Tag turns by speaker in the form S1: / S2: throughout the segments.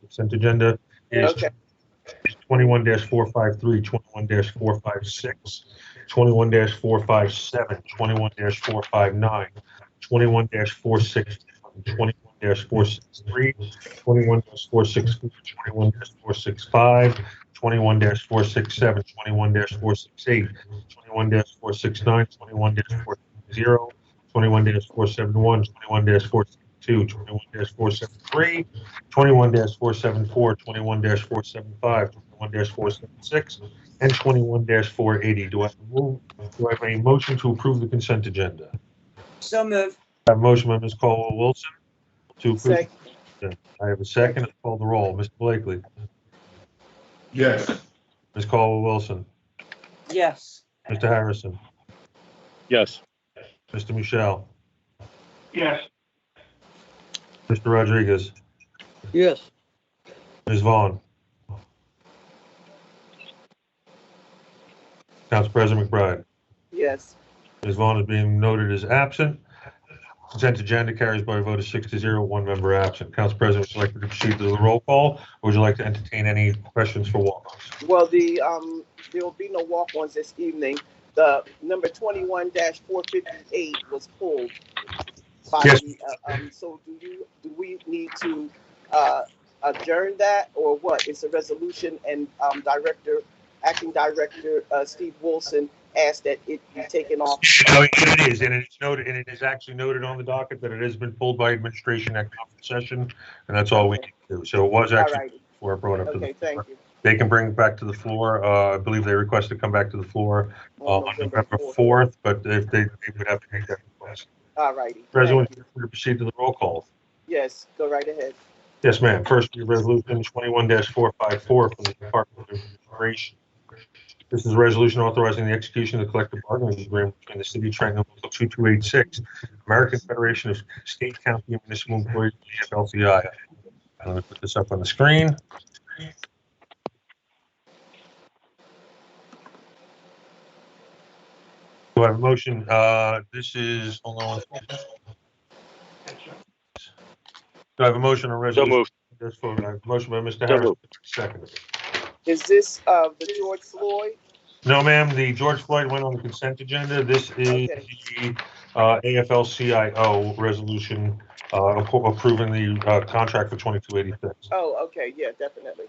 S1: Consent agenda is
S2: Okay,
S1: twenty-one 453 21 456 21 457 21 459 21 460 21 463 21 464 21 465 21 467 21 468 21 469 21 470 21 471 21 472 21 473 21 474, 21 475, 21 476, and 21 480. Do I move, do I have a motion to approve the consent agenda?
S2: so move.
S1: I have a motion by Ms. Caldwell Wilson to approve.
S2: Second,
S1: I have a second. I'll Call the roll. Mr. Blakely,
S3: Yes.
S1: Ms. Caldwell Wilson,
S2: yes.
S1: Mr. Harrison,
S3: Yes.
S1: Mr. Michelle,
S3: Yes.
S1: Mr. Rodriguez,
S4: Yes,
S1: Ms. Vaughn. Council President McBride.
S2: Yes.
S1: Ms. Vaughn is being noted as absent. Consent agenda carries by a vote of six to zero, one member absent. Council President, would you like me to proceed to the roll call, or would you like to entertain any questions for walk-ons?
S2: Well, the, um, there will be no walk-ons this evening. The number twenty-one four fifty-eight was pulled. by
S1: Yes.
S2: the, uh, Um, so do you, do we need to, uh, adjourn that or what? It's a resolution and, um, Director, Acting Director, uh, Steve Wilson asked that it be taken off.
S1: No, it is, and it's noted, and it is actually noted on the docket that it has been pulled by administration at conference session, and that's all we can do. So it was
S2: All
S1: actually
S2: right,
S1: before I brought up to
S2: okay,
S1: the,
S2: thank you.
S1: they can bring it back to the floor. Uh, I believe they request to come back to the floor uh, on November 4th, but if they, they would have to make that request.
S2: All righty.
S1: President, would
S2: Thank you.
S1: you like to proceed to the roll call.
S2: Yes, go right ahead.
S1: Yes, ma'am. First, we have resolution twenty-one four five four from the Department of Immigration. This is a resolution authorizing the execution of the collective bargaining agreement between the city of Trenton and Local two two eight six, American Federation of State, County, and Municipal Employees, AFL-CIO. I'm going to put this up on the screen. Do I have a motion? Uh, this is, hold on. Do I have a motion or
S3: So
S1: resolution?
S3: moved.
S1: That's for, uh, motion by Mr.
S3: So
S1: Harris,
S3: moved.
S1: second.
S2: Is this, uh, the George Floyd?
S1: No, ma'am, the George Floyd went on the consent agenda. This is
S2: Okay.
S1: the uh, AFL-CIO resolution uh, appro- approving the uh, contract for 2286.
S2: Oh, okay, yeah, definitely.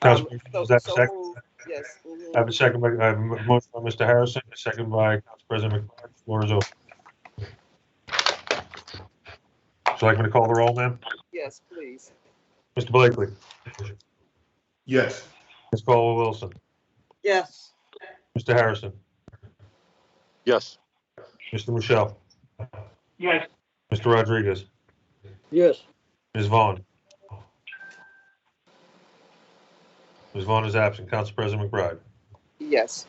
S1: Council,
S2: Um,
S1: is
S2: so-
S1: that
S2: so
S1: second?
S2: moved. Yes. mhm.
S1: I have a second by, I have a motion by Mr. Harrison, a second by Council President McBride. Floor is open. Would you like me to call the roll, ma'am?
S2: Yes, please.
S1: Mr. Blakely,
S3: Yes.
S1: Ms. Caldwell Wilson,
S2: Yes.
S1: Mr. Harrison,
S3: Yes.
S1: Mr. Michelle,
S3: Yes.
S1: Mr. Rodriguez,
S4: yes,
S1: Ms. Vaughn? Ms. Vaughn is absent. Council President McBride.
S2: Yes.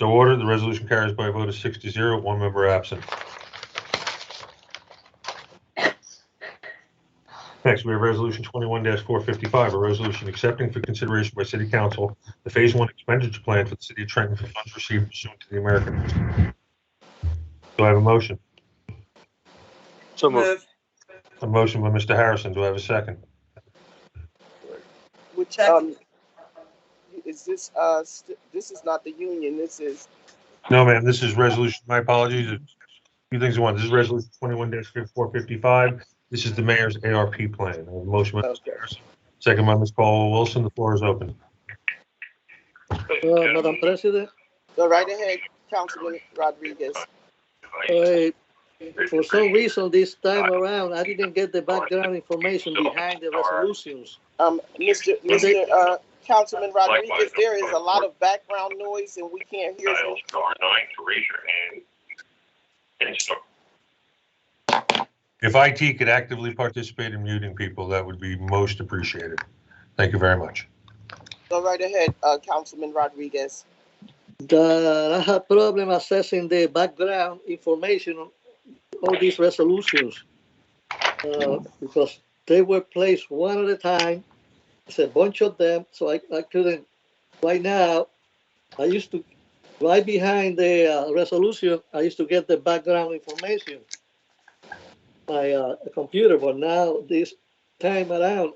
S1: So ordered, the resolution carries by a vote of six to zero, one member absent. Next, we have Resolution 21-455, a resolution accepting for consideration by City Council the Phase 1 expenditure plan for the City of Trenton for funds received pursuant to the American. Do I have a motion?
S3: So moved.
S1: A motion by Mr. Harrison. Do I have a second?
S2: Which, um, is this, uh, st- this is not the union, this is,
S1: No, ma'am, this is resolution, my apologies. A Few things at once. This is resolution twenty-one four fifty-five. This is the mayor's ARP plan. I have a Motion by Mr.
S2: Okay.
S1: Harrison, second by Ms. Caldwell Wilson. The floor is open.
S4: uh, Madam President,
S2: go right ahead, Councilman Rodriguez.
S4: I, uh, for some reason this time around, I didn't get the background information behind the resolutions.
S2: Um, Mr. Mr. Uh, Councilman Rodriguez, there is a lot of background noise and we can't hear you.
S5: dial star nine to raise your hand and start
S1: If IT could actively participate in muting people, that would be most appreciated. Thank you very much.
S2: Go right ahead, uh, Councilman Rodriguez.
S4: That I have problem accessing the background information on all these resolutions. uh, Because they were placed one at a time, it's a bunch of them, so I, I couldn't, right now, I used to, right behind the uh, resolution, I used to get the background information. My uh, computer, but now this time around,